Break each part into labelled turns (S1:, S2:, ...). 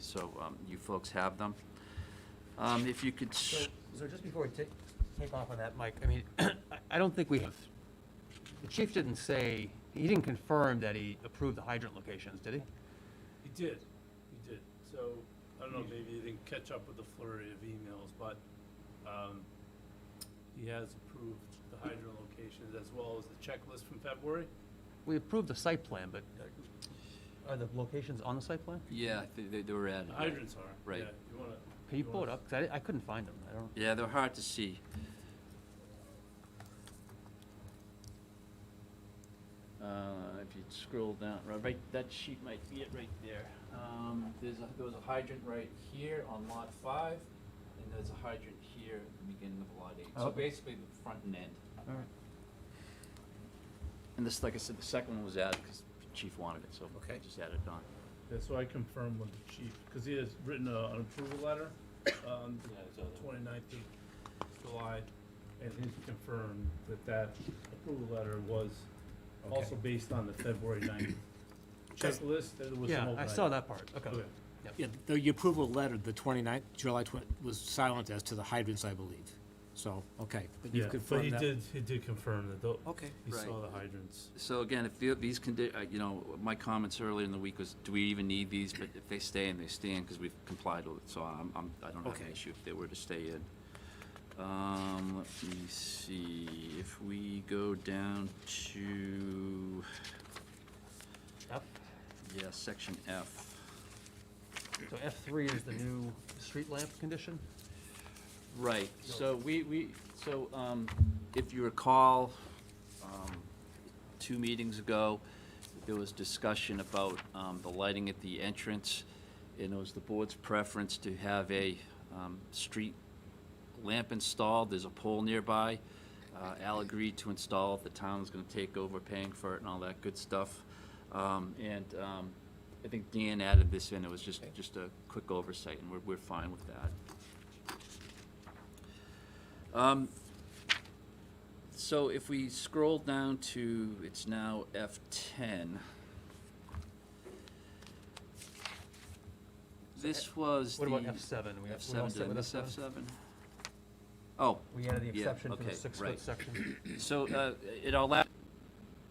S1: so um, you folks have them. Um, If you could,
S2: So,
S1: s-
S2: so just before we take, take off on that, Mike, I mean, I- I don't think we have, the chief didn't say, he didn't confirm that he approved the hydrant locations, did he?
S3: He did, he did. So, I don't know,
S2: Hmm.
S3: maybe he didn't catch up with the flurry of emails, but, um, he has approved the hydro locations as well as the checklist from February.
S2: We approved the site plan, but uh, are the locations on the site plan?
S1: yeah, they- they they were added.
S3: The
S1: right?
S3: hydrants are,
S1: Right.
S3: yeah, you wanna.
S2: Can you
S3: wanna
S2: pull it
S3: s-
S2: up? 'Cause I di- I couldn't find them, I don't,
S1: Yeah, they're hard to see. Uh, If you scroll down, right- right, that sheet might be it right there. Um, There's, a- there was a hydrant right here on lot five, and there's a hydrant here at the beginning of lot eight. So
S2: Okay.
S1: basically, the front and end.
S2: all right.
S1: And this, like I said, the second one was added because Chief wanted it, so I
S2: Okay.
S1: just added it on.
S3: Yeah, so I confirmed with the chief, because he has written a- an approval letter on the 29th of July, and he's confirmed that that approval letter was also based on the February 9th checklist, that it was some
S2: Yeah,
S3: old
S2: I saw
S3: item.
S2: that part, okay.
S3: Okay.
S4: Yeah, the the approval letter, the 29th, July 20, was silent as to the hydrants, I believe. So, okay, but
S3: Yeah,
S4: you've
S3: but he
S4: confirmed that.
S3: did, he did confirm that, tho-
S4: Okay.
S3: he
S1: Oh, Right.
S3: saw the hydrants.
S1: So again, if the- these condi, uh, you know, my comments earlier in the week was, do we even need these? But if they stay in, they stay in because we've complied with it, so I'm, I'm, I don't have an
S4: Okay.
S1: issue if they were to stay in. Um, let me see, if we go down to,
S2: F,
S1: yeah, section F.
S2: so F three is the new street lamp condition?
S1: Right, so we, we, so, um, if you recall, um, two meetings ago, there was discussion about, um, the lighting at the entrance, and it was the board's preference to have a, um, street lamp installed, there's a pole nearby. Uh, Al agreed to install it, the town was gonna take over paying for it and all that good stuff. Um, and, um, I think Dan added this in, it was just, just a quick oversight, and we're, we're fine with that. Um, So if we scroll down to, it's now F10. This was the.
S2: What about F seven? We have we all
S1: F7,
S2: set
S1: did I
S2: with
S1: miss
S2: F7?
S1: F7? Oh,
S2: We added the
S1: Yeah,
S2: exception for
S1: okay,
S2: the six
S1: right.
S2: foot section.
S1: so uh, in our last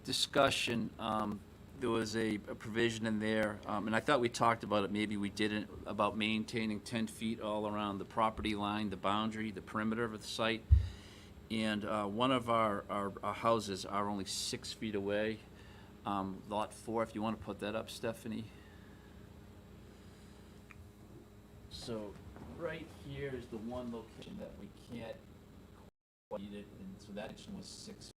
S1: discussion, um, there was a a provision in there, um, and I thought we talked about it, maybe we didn't, about maintaining 10 feet all around the property line, the boundary, the perimeter of the site. And uh, one of our, our our houses are only six feet away, um, Lot 4, if you want to put that up, Stephanie. So right here is the one location that we can't what he did, and so that action was six.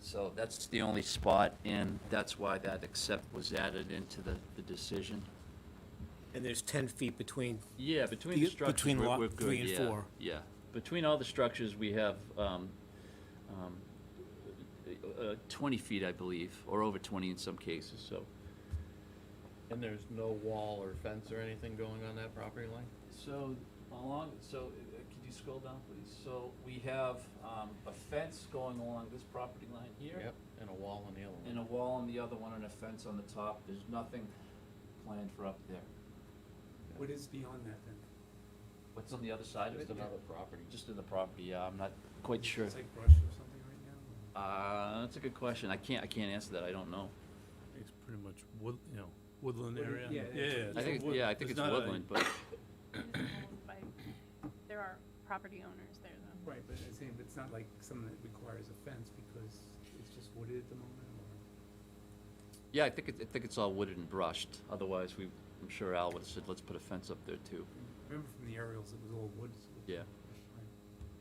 S1: So that's the only spot, and that's why that accept was added into the, the decision.
S4: And there's 10 feet between,
S1: Yeah, between
S4: Be-
S1: the structures,
S4: between
S1: we're,
S4: lot
S1: we're good,
S4: three and
S1: yeah,
S4: four.
S1: Yeah, between all the structures, we have, um, um, uh, uh, twenty feet, I believe, or over twenty in some cases, so.
S5: And there's no wall or fence or anything going on that property line?
S1: So along, so uh, could you scroll down, please? So we have, um, a fence going along this property line here.
S5: Yep, and a wall on the other
S1: and
S5: one.
S1: a wall on the other one and a fence on the top. There's nothing planned for up there.
S6: What is beyond that then?
S1: What's on the other side of it?
S5: Just another property.
S1: Just in the property, yeah, I'm not quite sure.
S6: It's like brush or something right now?
S1: Uh, that's a good question. I can't, I can't answer that. I don't know.
S3: It's pretty much wood, you know, woodland area.
S6: Woodland, yeah,
S3: Yeah,
S6: yeah.
S3: yeah.
S1: I
S3: it's
S1: think,
S3: wood-
S1: yeah, I think it's
S3: there's not a-
S1: woodland, but,
S7: It is owned by, there are property owners there though.
S6: Right, but I'm saying, but it's not like something that requires a fence because it's just wooded at the moment or?
S1: yeah, I think, it- I think it's all wooded and brushed. Otherwise, we, I'm sure Al would've said, let's put a fence up there too.
S6: Remember from the aerials, it was all woods.
S1: Yeah.
S6: Right.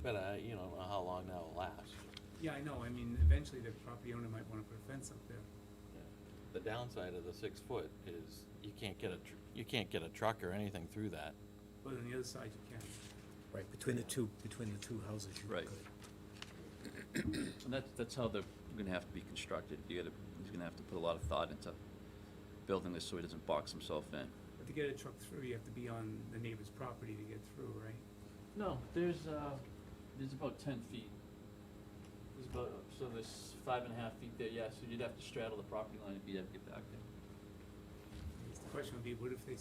S5: But I, you don't know how long that will last.
S6: Yeah, I know, I mean, eventually the property owner might wanna put a fence up there.
S5: Yeah. The downside of the six foot is you can't get a, tr- you can't get a truck or anything through that.
S6: But on the other side, you can.
S4: right, between the two, between the two houses. you
S1: Right.
S4: could.
S1: And that's, that's how they're gonna have to be constructed. You gotta, he's gonna have to put a lot of thought into building this so he doesn't box himself in.
S6: But to get a truck through, you have to be on the neighbor's property to get through, right?
S1: No, there's, uh, there's about ten feet. There's about, so there's five and a half feet there, yeah, so you'd have to straddle the property line if you had to get back there.
S6: I guess The question would be, what if they